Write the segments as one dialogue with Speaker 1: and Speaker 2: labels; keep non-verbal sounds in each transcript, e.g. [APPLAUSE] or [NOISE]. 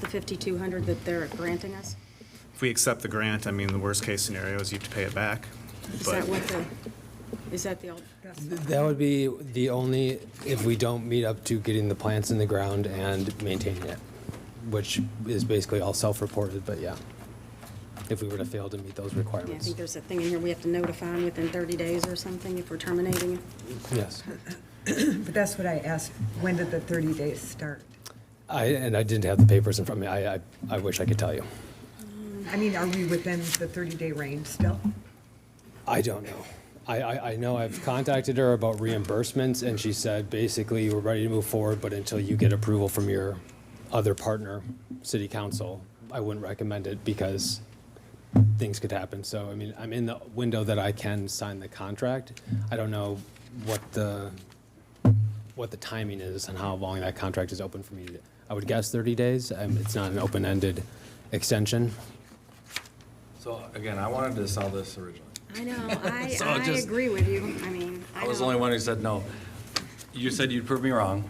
Speaker 1: the 5,200 that they're granting us?
Speaker 2: If we accept the grant, I mean, the worst-case scenario is you have to pay it back.
Speaker 1: Is
Speaker 2: but-
Speaker 1: that what the, is that the, al-
Speaker 3: That would be the only, if we don't meet up to getting the plants in the ground and maintaining it, which is basically all self-reported, but yeah. If we were to fail to meet those
Speaker 1: yeah, I
Speaker 3: requirements,
Speaker 1: think there's a thing in here, we have to notify them within 30 days or something if we're terminating it.
Speaker 3: yes.
Speaker 4: But that's what I asked, when did the 30 days start?
Speaker 3: I, and I didn't have the papers in front of me. I, I, I wish I could tell you.
Speaker 4: I mean, are we within the 30-day range still?
Speaker 3: I don't know. I, I, I know I've contacted her about reimbursements and she said, basically, we're ready to move forward, but until you get approval from your other partner, city council, I wouldn't recommend it because things could happen. So, I mean, I'm in the window that I can sign the contract. I don't know what the, what the timing is and how long that contract is open for me. to- I would guess 30 days. Um, It's not an open-ended extension.
Speaker 5: So again, I wanted to sell this originally.
Speaker 1: I
Speaker 5: [LAUGHS]
Speaker 1: know, I,
Speaker 5: So
Speaker 1: I
Speaker 5: just-
Speaker 1: agree with you, I mean, I
Speaker 5: I was the
Speaker 1: know.
Speaker 5: only one who said no. You said you'd prove me wrong.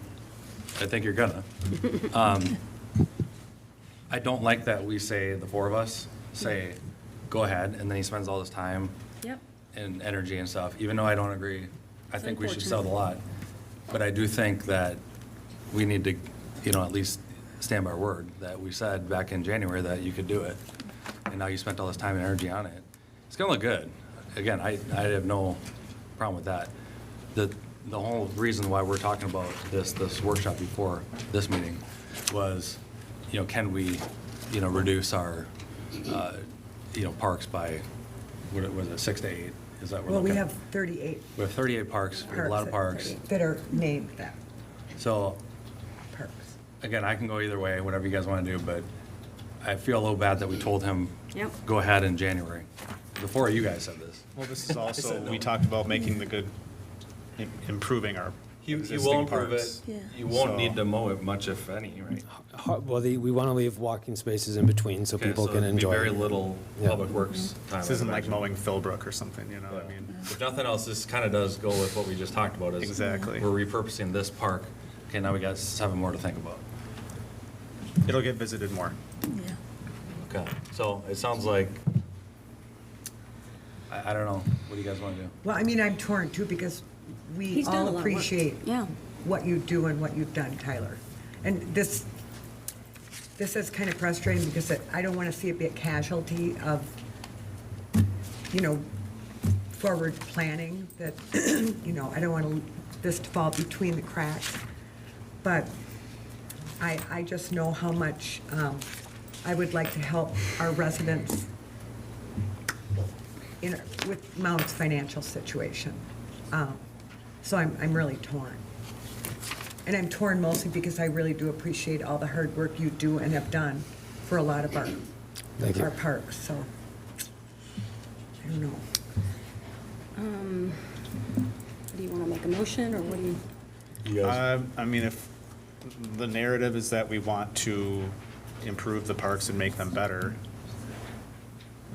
Speaker 5: I think you're gonna. Um, I don't like that we say, the four of us say, go ahead, and then he spends all this time
Speaker 1: Yep,
Speaker 5: and energy and stuff, even though I don't agree. I
Speaker 1: It's
Speaker 5: think we should sell the lot. But I do think that we need to, you know, at least stand by our word that we said back in January that you could do it. And now you spent all this time and energy on it. It's gonna look good. Again, I, I have no problem with that. The, the whole reason why we're talking about this, this workshop before this meeting was, you know, can we, you know, reduce our, uh, you know, parks by, what was it, six to eight? Is that what we're
Speaker 4: Well, we
Speaker 5: looking at?
Speaker 4: have 38
Speaker 5: We have 38 parks, we have a lot of
Speaker 4: parks
Speaker 5: parks.
Speaker 4: that are named that,
Speaker 5: So,
Speaker 4: parks.
Speaker 5: again, I can go either way, whatever you guys want to do, but I feel a little bad that we told him,
Speaker 1: Yep.
Speaker 5: go ahead in January. The four of you guys said this.
Speaker 2: Well, this is also, we talked about making the good, im- improving our existing parks.
Speaker 1: Yeah.
Speaker 5: You
Speaker 2: So-
Speaker 5: won't need to mow it much, if any, right?
Speaker 3: Ho- Well, the, we want to leave walking spaces in between so
Speaker 5: Okay,
Speaker 3: people
Speaker 5: so
Speaker 3: can
Speaker 5: it'd be
Speaker 3: enjoy.
Speaker 5: Very
Speaker 3: it.
Speaker 5: little
Speaker 3: Yeah.
Speaker 5: public works
Speaker 1: Mm-hmm.
Speaker 5: time.
Speaker 2: This
Speaker 5: I'd
Speaker 2: isn't like
Speaker 5: imagine.
Speaker 2: mowing Philbrook or something, you know, I mean,
Speaker 5: If nothing else, this kind of does go with what we just talked about. is
Speaker 2: Exactly.
Speaker 5: We're repurposing this park. Okay, now we got seven more to think about.
Speaker 2: it'll get visited more.
Speaker 5: Okay, so it sounds like, I, I don't know, what do you guys want to do?
Speaker 4: Well, I mean, I'm torn too, because we
Speaker 1: He's done a lot
Speaker 4: all
Speaker 1: of work.
Speaker 4: appreciate
Speaker 1: Yeah.
Speaker 4: what you do and what you've done, Tyler. And this, this is kind of frustrating because it- I don't want to see it be a casualty of, you know, forward planning that, [CLEARS THROAT] you know, I don't want this to fall between the cracks. But I, I just know how much um, I would like to help our residents in, with Mount's financial situation. Um, So I'm, I'm really torn. And I'm torn mostly because I really do appreciate all the hard work you do and have done for a lot of our,
Speaker 3: Thank you.
Speaker 4: our parks, so. I don't know.
Speaker 1: do you want to make a motion, or what do you,
Speaker 5: You guys,
Speaker 2: Um, I mean, if the narrative is that we want to improve the parks and make them better,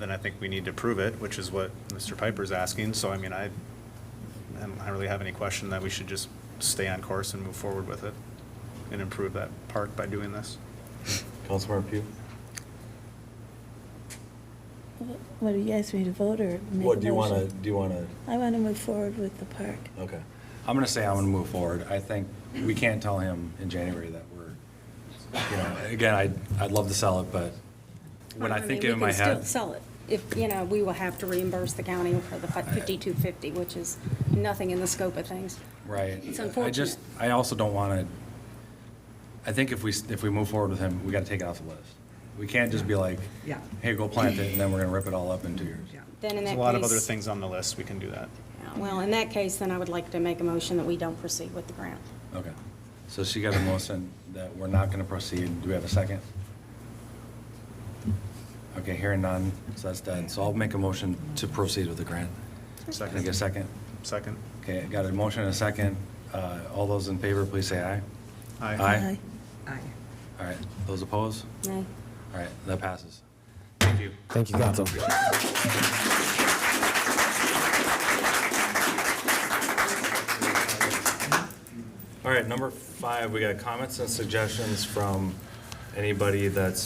Speaker 2: then I think we need to prove it, which is what Mr. Piper's asking. So I mean, I, I don't really have any question that we should just stay on course and move forward with it and improve that park by doing this.
Speaker 5: Councilmember Pugh?
Speaker 6: What, do you guys want me to vote or make
Speaker 5: What,
Speaker 6: a
Speaker 5: do you want to,
Speaker 6: motion?
Speaker 5: do you want to,
Speaker 6: I want to move forward with the park.
Speaker 5: okay. I'm going to say I'm going to move forward. I think we can't tell him in January that we're, you know, again, I'd, I'd love to sell it, but when I
Speaker 1: mean,
Speaker 5: think in my
Speaker 1: We can still
Speaker 5: head,
Speaker 1: sell it, if, you know, we will have to reimburse the county for the 5,250, which is nothing in the scope of things.
Speaker 5: right.
Speaker 1: It's
Speaker 5: I just,
Speaker 1: unfortunate.
Speaker 5: I also don't want to, I think if we, s- if we move forward with him, we got to take it off the list. We can't just be like,
Speaker 4: Yeah.
Speaker 5: hey, go plant it, and then we're going to rip it all up in two years.
Speaker 4: Yeah.
Speaker 1: Then in
Speaker 2: There's
Speaker 1: that
Speaker 2: a
Speaker 1: case.
Speaker 2: lot of other things on the list, we can do that.
Speaker 1: Well, in that case, then I would like to make a motion that we don't proceed with the grant.
Speaker 5: Okay. So she got a motion that we're not going to proceed. Do we have a second? Okay, hearing none, so that's done. So I'll make a motion to proceed with the grant. Can I get a
Speaker 2: Second,
Speaker 5: second?
Speaker 2: second.
Speaker 5: Okay, I got a motion and a second. Uh, All those in favor, please say aye.
Speaker 2: Aye.
Speaker 5: Aye?
Speaker 4: I,
Speaker 5: All right. Those opposed?
Speaker 1: Nay.
Speaker 5: All right, that passes. Thank you.
Speaker 3: Thank you, council.
Speaker 5: All right, number five, we got comments and suggestions from anybody that's